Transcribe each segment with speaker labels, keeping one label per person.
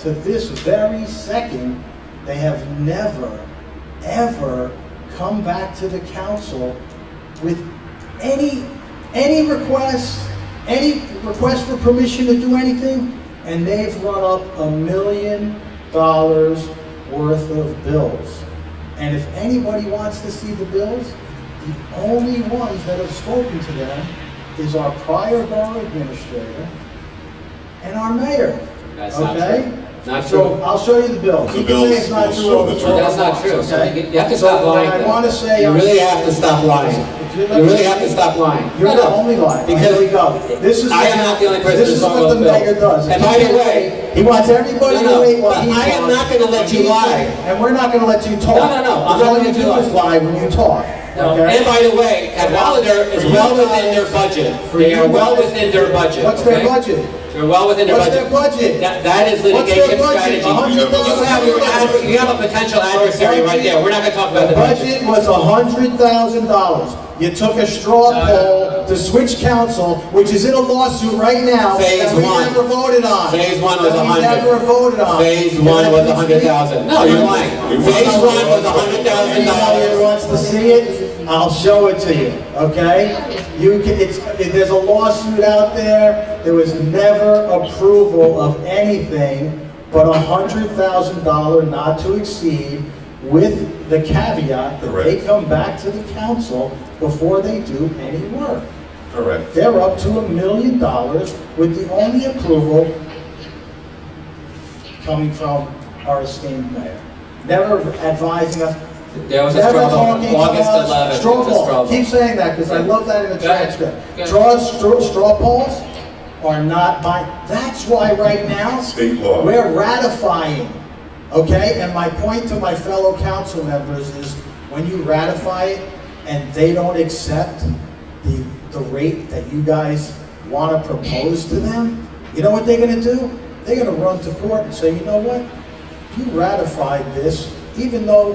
Speaker 1: to this very second, they have never, ever come back to the council with any, any requests, any request for permission to do anything, and they've run up a million dollars worth of bills. And if anybody wants to see the bills, the only ones that have spoken to them is our prior borough administrator and our mayor.
Speaker 2: That's not
Speaker 1: Okay?
Speaker 2: true. Not
Speaker 1: So
Speaker 2: true.
Speaker 1: I'll show you the bill.
Speaker 3: The
Speaker 1: You can say it's
Speaker 3: bills
Speaker 1: not
Speaker 3: will
Speaker 1: true
Speaker 3: show
Speaker 1: all
Speaker 3: the
Speaker 1: the
Speaker 3: truth.
Speaker 1: time.
Speaker 2: That's not true. So you get- you have to stop
Speaker 1: So what
Speaker 2: lying.
Speaker 1: I
Speaker 2: then.
Speaker 1: wanna say
Speaker 2: You
Speaker 1: I'm
Speaker 2: really
Speaker 1: sorry.
Speaker 2: have to stop lying.
Speaker 1: If
Speaker 2: You
Speaker 1: you're not-
Speaker 2: really have to stop lying.
Speaker 1: You're
Speaker 2: No,
Speaker 1: the
Speaker 2: no.
Speaker 1: only liar.
Speaker 2: Because
Speaker 1: Here we go. This is.
Speaker 2: I am not the only person
Speaker 1: This
Speaker 2: to
Speaker 1: is
Speaker 2: talk
Speaker 1: what
Speaker 2: about
Speaker 1: the mayor
Speaker 2: bills.
Speaker 1: does.
Speaker 2: And by the way-
Speaker 1: He wants everybody
Speaker 2: No,
Speaker 1: to
Speaker 2: no,
Speaker 1: wait while
Speaker 2: but
Speaker 1: he's.
Speaker 2: I am
Speaker 1: on.
Speaker 2: not gonna let you
Speaker 1: He's-
Speaker 2: lie.
Speaker 1: And we're not gonna let you talk.
Speaker 2: No, no, no, I'm
Speaker 1: Because
Speaker 2: not
Speaker 1: all
Speaker 2: gonna
Speaker 1: you
Speaker 2: do
Speaker 1: do
Speaker 2: it.
Speaker 1: is lie when you talk,
Speaker 2: And
Speaker 1: okay?
Speaker 2: by the way, Cadwalader is well within their budget.
Speaker 1: For
Speaker 2: They are
Speaker 1: you
Speaker 2: well
Speaker 1: guys-
Speaker 2: within their budget.
Speaker 1: What's their
Speaker 2: okay?
Speaker 1: budget?
Speaker 2: They're well within their
Speaker 1: What's
Speaker 2: budget.
Speaker 1: their budget?
Speaker 2: That, that is
Speaker 1: What's their
Speaker 2: litigation
Speaker 1: budget?
Speaker 2: strategy.
Speaker 1: A hundred thousand
Speaker 2: You have, your ad- you have a potential adversary right there. We're not gonna talk about
Speaker 1: The
Speaker 2: the budget.
Speaker 1: budget was hundred thousand dollars. You took a straw
Speaker 2: No, no, no.
Speaker 1: poll to switch council, which is in a lawsuit right now
Speaker 2: Phase
Speaker 1: that we
Speaker 2: one.
Speaker 1: never voted on.
Speaker 2: Phase one was
Speaker 1: That we
Speaker 2: 100.
Speaker 1: never voted on.
Speaker 2: Phase one was
Speaker 1: a
Speaker 2: a hundred thousand. No, you're lying. Phase one was a hundred thousand
Speaker 1: Anybody that
Speaker 2: dollars.
Speaker 1: wants to see it, I'll show it to you, okay? You can, it's, there's a lawsuit out there, there was never approval of anything but a hundred thousand dollar not to exceed with the caveat that they
Speaker 3: Correct.
Speaker 1: come back to the council before they do any work.
Speaker 3: Correct.
Speaker 1: They're up to a million dollars with the only approval coming from our esteemed mayor. Never advising us.
Speaker 2: There was a
Speaker 1: never
Speaker 2: struggle on
Speaker 1: talking to
Speaker 2: August
Speaker 1: us.
Speaker 2: 11th.
Speaker 1: Straw
Speaker 2: It was a
Speaker 1: poll.
Speaker 2: struggle.
Speaker 1: Keep saying that because I love that in the
Speaker 2: Go ahead. Go
Speaker 1: transcript.
Speaker 2: ahead.
Speaker 1: Draw, straw, straw polls are not my, that's why right now.
Speaker 3: State law.
Speaker 1: We're ratifying, okay? And my point to my fellow council members is, when you ratify it and they don't accept the, the rate that you guys want to propose to them, you know what they're gonna do? They're gonna run to court and say, you know what? You ratified this, even though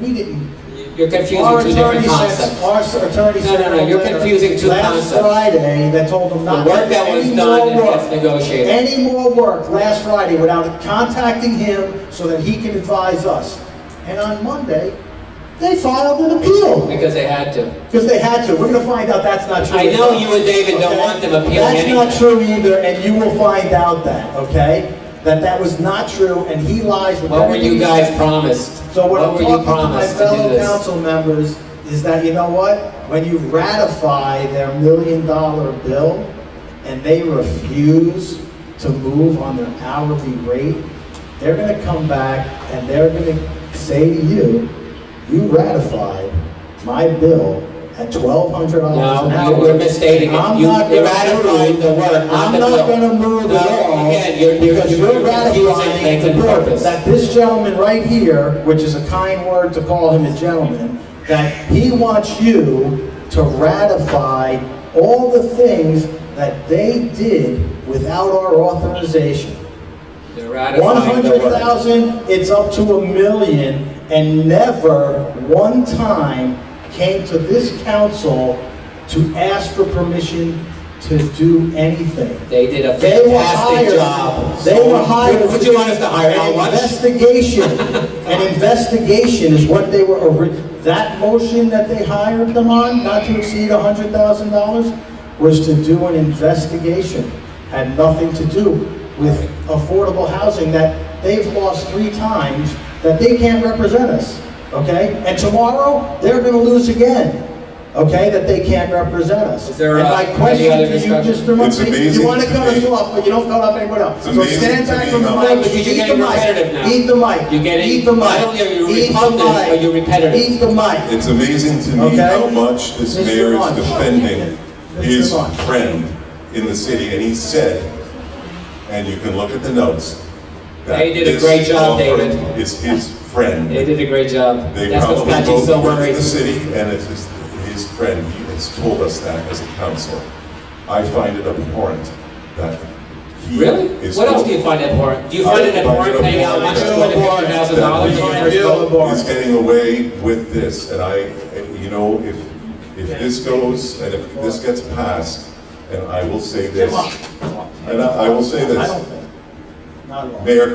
Speaker 1: we didn't.
Speaker 2: You're confusing
Speaker 1: Our
Speaker 2: two
Speaker 1: attorney
Speaker 2: different
Speaker 1: said-
Speaker 2: concepts.
Speaker 1: Our attorney
Speaker 2: No, no,
Speaker 1: said.
Speaker 2: no, you're
Speaker 1: a letter
Speaker 2: confusing two
Speaker 1: Last
Speaker 2: concepts.
Speaker 1: Friday, that told them
Speaker 2: The
Speaker 1: not.
Speaker 2: work that was
Speaker 1: Any
Speaker 2: done
Speaker 1: more
Speaker 2: and gets
Speaker 1: work.
Speaker 2: negotiated.
Speaker 1: Any more work last Friday without contacting him so that he can advise us. And on Monday, they filed an appeal
Speaker 2: Because they had to.
Speaker 1: because they had to. We're going to find out that's not true.
Speaker 2: I know you and David don't
Speaker 1: Okay?
Speaker 2: want them appealing anything.
Speaker 1: That's not true either, and you will find out that, okay? That that was not true, and he lies with everything.
Speaker 2: What were you
Speaker 1: he
Speaker 2: guys
Speaker 1: said.
Speaker 2: promised?
Speaker 1: So what I'm
Speaker 2: were you
Speaker 1: talking to my
Speaker 2: promised to do
Speaker 1: fellow
Speaker 2: this?
Speaker 1: council members is that, you know what? When you ratify their million dollar bill and they refuse to move on their hourly rate, they're gonna come back and they're gonna say to you, you ratified my bill at twelve hundred dollars an
Speaker 2: No,
Speaker 1: hour.
Speaker 2: you were misstating it.
Speaker 1: I'm
Speaker 2: You
Speaker 1: not gonna
Speaker 2: ratified
Speaker 1: move-
Speaker 2: the work, not
Speaker 1: I'm
Speaker 2: the
Speaker 1: not
Speaker 2: bill.
Speaker 1: gonna move
Speaker 2: No,
Speaker 1: at all.
Speaker 2: again, you're- you're-
Speaker 1: because
Speaker 2: you're confusing
Speaker 1: ratifying
Speaker 2: things
Speaker 1: the
Speaker 2: and
Speaker 1: bill
Speaker 2: purpose.
Speaker 1: that this gentleman right here, which is a kind word to call him a gentleman, that he wants you to ratify all the things that they did without our authorization.
Speaker 2: They're ratifying the work.
Speaker 1: 100,000, it's up to a million, and never one time came to this council to ask for permission to do anything.
Speaker 2: They did a
Speaker 1: They were
Speaker 2: fantastic
Speaker 1: hired,
Speaker 2: job.
Speaker 1: they were hired.
Speaker 2: Would you want us to hire
Speaker 1: An
Speaker 2: Al Wunsch?
Speaker 1: investigation, an investigation is what they were, ori- that motion that they hired them on, not to exceed hundred thousand dollars, was to do an investigation, had nothing to do with affordable housing that they've lost three times, that they can't represent us, okay? And tomorrow, they're gonna lose again, okay, that they can't represent us.
Speaker 2: Is there,
Speaker 1: And
Speaker 2: uh,
Speaker 1: my
Speaker 2: any
Speaker 1: question
Speaker 2: other
Speaker 1: to you,
Speaker 2: discussion?
Speaker 1: Mr. Murphy, You
Speaker 3: amazing
Speaker 1: wanna
Speaker 3: to
Speaker 1: cut us
Speaker 3: me.
Speaker 1: off, but you don't cut off anyone else.
Speaker 3: It's
Speaker 1: So
Speaker 3: amazing
Speaker 1: stand
Speaker 3: to
Speaker 1: back
Speaker 3: me
Speaker 1: from the
Speaker 3: how
Speaker 1: mic,
Speaker 2: much- But you're
Speaker 1: eat the
Speaker 2: getting repetitive
Speaker 1: mic,
Speaker 2: now.
Speaker 1: eat the mic.
Speaker 2: You're getting-
Speaker 1: Eat the mic.
Speaker 2: not only are you
Speaker 1: Eat the
Speaker 2: repugnant,
Speaker 1: mic.
Speaker 2: but you're repetitive.
Speaker 1: Eat the mic.
Speaker 3: It's amazing to me
Speaker 1: Okay.
Speaker 3: how much this
Speaker 1: Mr.
Speaker 3: mayor
Speaker 1: Vaughn.
Speaker 3: is defending
Speaker 1: Mr.
Speaker 3: his
Speaker 1: Vaughn.
Speaker 3: friend in the city, and he said, and you can look at the notes. that
Speaker 2: They did a
Speaker 3: this
Speaker 2: great job,
Speaker 3: law
Speaker 2: David.
Speaker 3: firm Is his friend.
Speaker 2: They did a great job.
Speaker 3: They
Speaker 2: That's what's
Speaker 3: probably
Speaker 2: got you
Speaker 3: both
Speaker 2: so
Speaker 3: work in
Speaker 2: worried.
Speaker 3: the city, and it's his, his friend, he has told us that as a council. I find it abhorrent that he
Speaker 2: Really?
Speaker 3: is.
Speaker 2: What else do you find abhorrent? Do you
Speaker 3: I
Speaker 2: find it
Speaker 3: find it
Speaker 2: abhorrent paying out
Speaker 3: abhorrent
Speaker 2: much more than fifty thousand dollars for
Speaker 3: that
Speaker 2: your
Speaker 3: we
Speaker 2: bill?
Speaker 3: Is getting away with this, and I, you know, if, if this goes, and if this gets passed, and I will say this,
Speaker 1: Come on.
Speaker 3: and I I will say
Speaker 1: I don't
Speaker 3: this,
Speaker 1: think, not at all.
Speaker 3: Mayor